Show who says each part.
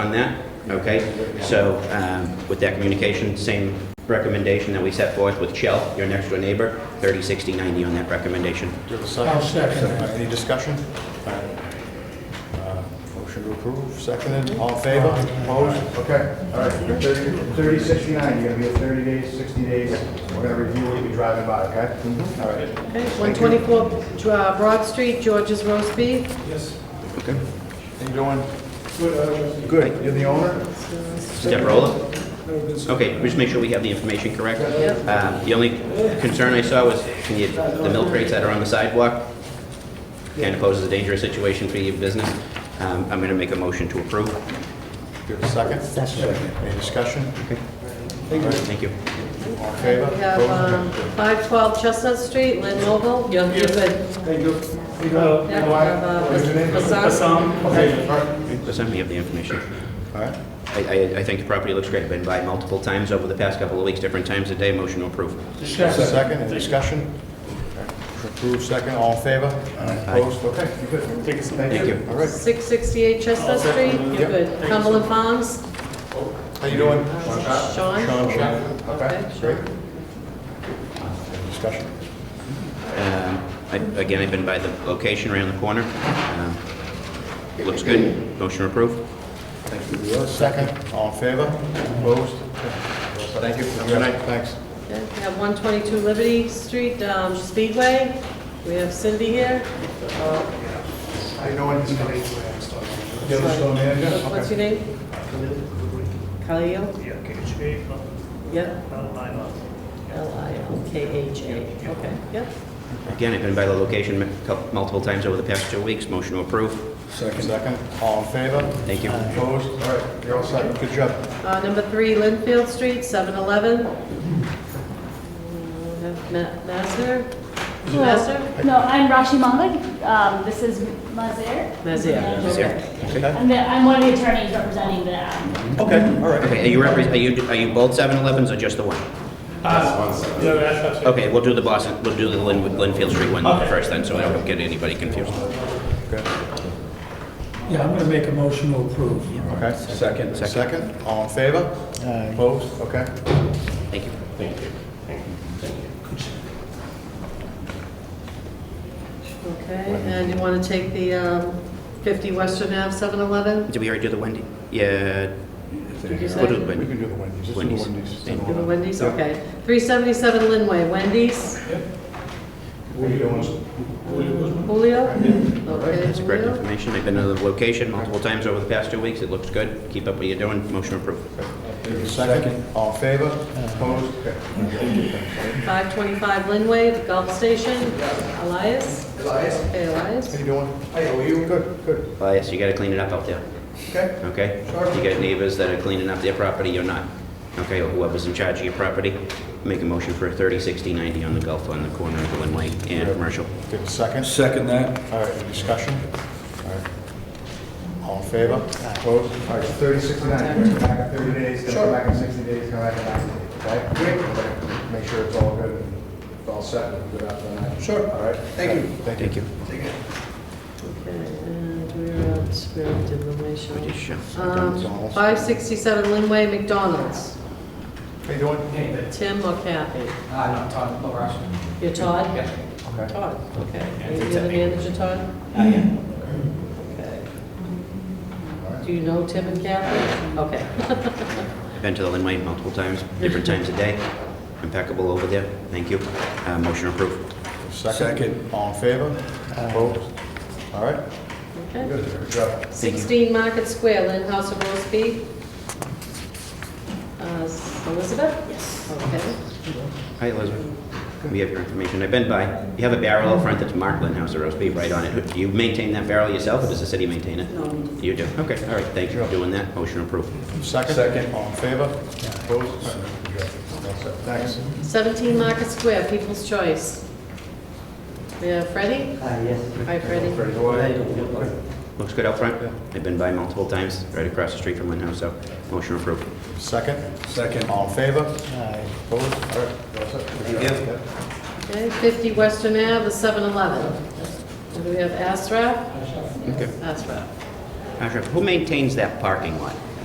Speaker 1: on that, okay? So um, with that communication, same recommendation that we set forth with Shell, your next door neighbor, 30, 60, 90 on that recommendation.
Speaker 2: Do you have a
Speaker 3: I'll
Speaker 2: second?
Speaker 3: second that.
Speaker 2: Any discussion? All right. Uh, Motion to approve, seconded, all in favor? Opposed?
Speaker 4: Okay, all right, you're 30, 30, 69, you're gonna be at 30 days, 60 days, we're gonna review what you're driving by, okay?
Speaker 2: Mm-hmm.
Speaker 4: All right.
Speaker 5: Okay, 124 Dra- uh, Broad Street, George's Roast Beef.
Speaker 4: Yes.
Speaker 2: How you doing?
Speaker 4: Good. Good, you're the owner?
Speaker 1: Step roller? Okay, we just make sure we have the information correct. Um, The only concern I saw was, can you, the milk crates that are on the sidewalk, kind of poses a dangerous situation for your business. Um, I'm going to make a motion to approve.
Speaker 2: Do you have a second? Second. Any discussion?
Speaker 1: Thank you.
Speaker 2: All in
Speaker 5: We
Speaker 2: favor?
Speaker 5: have um,
Speaker 2: Opposed?
Speaker 5: 512 Chestnut Street, Lynn Noble. You're you're good.
Speaker 4: Thank you.
Speaker 5: Yeah, we have, uh,
Speaker 4: What's your name?
Speaker 5: Hassan.
Speaker 4: Okay, all right.
Speaker 1: So send me up the information.
Speaker 2: All right.
Speaker 1: I- I I think the property looks great. I've been by multiple times over the past couple of weeks, different times a day. Motion to approve.
Speaker 2: Second, any discussion? All right. Motion Approved, second, all in favor? Opposed? Okay, you're good.
Speaker 4: Take a seat.
Speaker 1: Thank you.
Speaker 2: All right,
Speaker 5: 668 Chestnut Street,
Speaker 2: Yep.
Speaker 5: you're good. Cumberland Farms,
Speaker 2: how you doing?
Speaker 5: uh, Sean.
Speaker 2: Sean, Sean, okay,
Speaker 5: Okay,
Speaker 2: great. Any Discussion.
Speaker 1: Um, I- Again, I've been by the location around the corner. Um, Looks good. Motion approved.
Speaker 2: Second, all in favor? Opposed? Thank you. Have a good night. Thanks.
Speaker 5: Okay, We have 122 Liberty Street, um, Speedway. We have Cindy here.
Speaker 4: How you doing? You're the store manager?
Speaker 5: What's your name? Khalil?
Speaker 6: Yeah, KHA from
Speaker 5: Yep,
Speaker 6: Alabama.
Speaker 5: L-I-L-K-H-A. Okay, yep.
Speaker 1: Again, I've been by the location mu- cou- multiple times over the past two weeks. Motion to approve.
Speaker 2: Second. Second, all in favor?
Speaker 1: Thank you.
Speaker 2: Opposed? All right, you're all set. Good job.
Speaker 5: Uh, Number three, Linfield Street, 7-Eleven. We have Ma- Mazzer?
Speaker 7: Hello.
Speaker 5: Mazzer?
Speaker 7: No, I'm Rashi Mahmood. Um, this is Mazir.
Speaker 5: Mazir,
Speaker 7: And-
Speaker 1: Mazir,
Speaker 2: okay.
Speaker 7: And then I'm one of the attorneys representing the, um,
Speaker 2: Okay, all right.
Speaker 1: Okay, are you repre- are you, are you both 7-Elevens or just the one?
Speaker 6: Yeah, that's absolutely.
Speaker 1: Okay, we'll do the Boston, we'll do the Lin- Linfield Street one first then, so I don't get anybody confused.
Speaker 3: Yeah, I'm gonna make a motion to approve.
Speaker 2: Okay, second. Second, all in favor? Opposed? Okay.
Speaker 1: Thank you.
Speaker 5: Okay, and you want to take the um, 50 Western Ave, 7-Eleven?
Speaker 1: Did we already do the Wendy? Yeah.
Speaker 5: you say-
Speaker 1: We'll do the
Speaker 2: We can
Speaker 1: Wendy.
Speaker 2: do the Wendy's. Let's do the
Speaker 1: Wendy's.
Speaker 2: Wendy's.
Speaker 1: Thank
Speaker 5: Do the Wendy's,
Speaker 2: Yeah.
Speaker 5: okay. 377 Linway, Wendy's,
Speaker 4: What are you doing?
Speaker 5: Julio? Okay,
Speaker 1: That's correct
Speaker 5: Julio.
Speaker 1: information. I've been to the location multiple times over the past two weeks. It looks good. Keep up what you're doing. Motion approved.
Speaker 2: Second, all in favor? Opposed? Okay.
Speaker 5: 525 Linway, the Gulf Station, Elias? Elias. Okay, Elias.
Speaker 2: How you doing? Hey, how are you? Good, good.
Speaker 1: Elias, you gotta clean it up out there,
Speaker 2: Okay.
Speaker 1: okay? You got neighbors that are cleaning up their property, you're not, okay? Or whoever's in charge of your property. Make a motion for 30, 60, 90 on the Gulf, on the corner of Linway and Commercial.
Speaker 2: Give a second.
Speaker 8: Second that.
Speaker 2: All right, any discussion? All right. All in favor? Opposed?
Speaker 4: All right, 30, 69, you're gonna come back in 30 days, then come back in 60 days, come back in 90 days, okay? Great. Make sure it's all good, and it's all set, and good after that. Sure. All right? Thank you. Thank
Speaker 1: Thank you.
Speaker 5: Okay, and we're out, we're out of information.
Speaker 1: Pretty sure.
Speaker 5: Um, 567 Linway, McDonald's,
Speaker 2: How you doing?
Speaker 5: Tim or Kathy?
Speaker 9: Uh, no, Todd Labrash.
Speaker 5: You're Todd?
Speaker 9: Yeah.
Speaker 2: Okay.
Speaker 5: Todd, okay.
Speaker 9: it's
Speaker 5: You're the
Speaker 9: Timmy.
Speaker 5: manager, Todd?
Speaker 9: Uh, yeah.
Speaker 5: Okay. Do you know Tim and Kathy? Okay.
Speaker 1: I've Been to the Linway multiple times, different times a day. Impeccable over there. Thank you. Uh, Motion approved.
Speaker 2: Second. All in favor? Opposed? All right.
Speaker 5: Okay.
Speaker 2: Good, good job.
Speaker 5: 16 Market Square, Lynn House of Roast Beef. Uh, Elizabeth? Yes. Okay.
Speaker 1: Hi, Elizabeth. We have your information. I've been by. You have a barrel out front that's marked House of Roast Beef right on it. Do you maintain that barrel yourself, or does the city maintain it? No. You do? Okay, all right. Thank you for doing that. Motion approved.
Speaker 2: Second. Second. All in favor? Opposed? All right, good job. All set. Thanks.
Speaker 5: 17 Market Square, People's Choice. We have Freddie?
Speaker 9: Uh, yes.
Speaker 5: Hi, Freddie.
Speaker 2: Ready to go?
Speaker 1: Looks good out front. I've been by multiple times, right across the street from House. so motion approved.
Speaker 2: Second.
Speaker 8: Second.
Speaker 2: All in favor? Opposed? All right. you're all set. Good job.
Speaker 1: you.
Speaker 5: Okay, 50 Western Ave, the 7-Eleven. And we have Astra?
Speaker 1: Okay.
Speaker 5: Astra.
Speaker 1: Ashraf, who maintains that parking lot?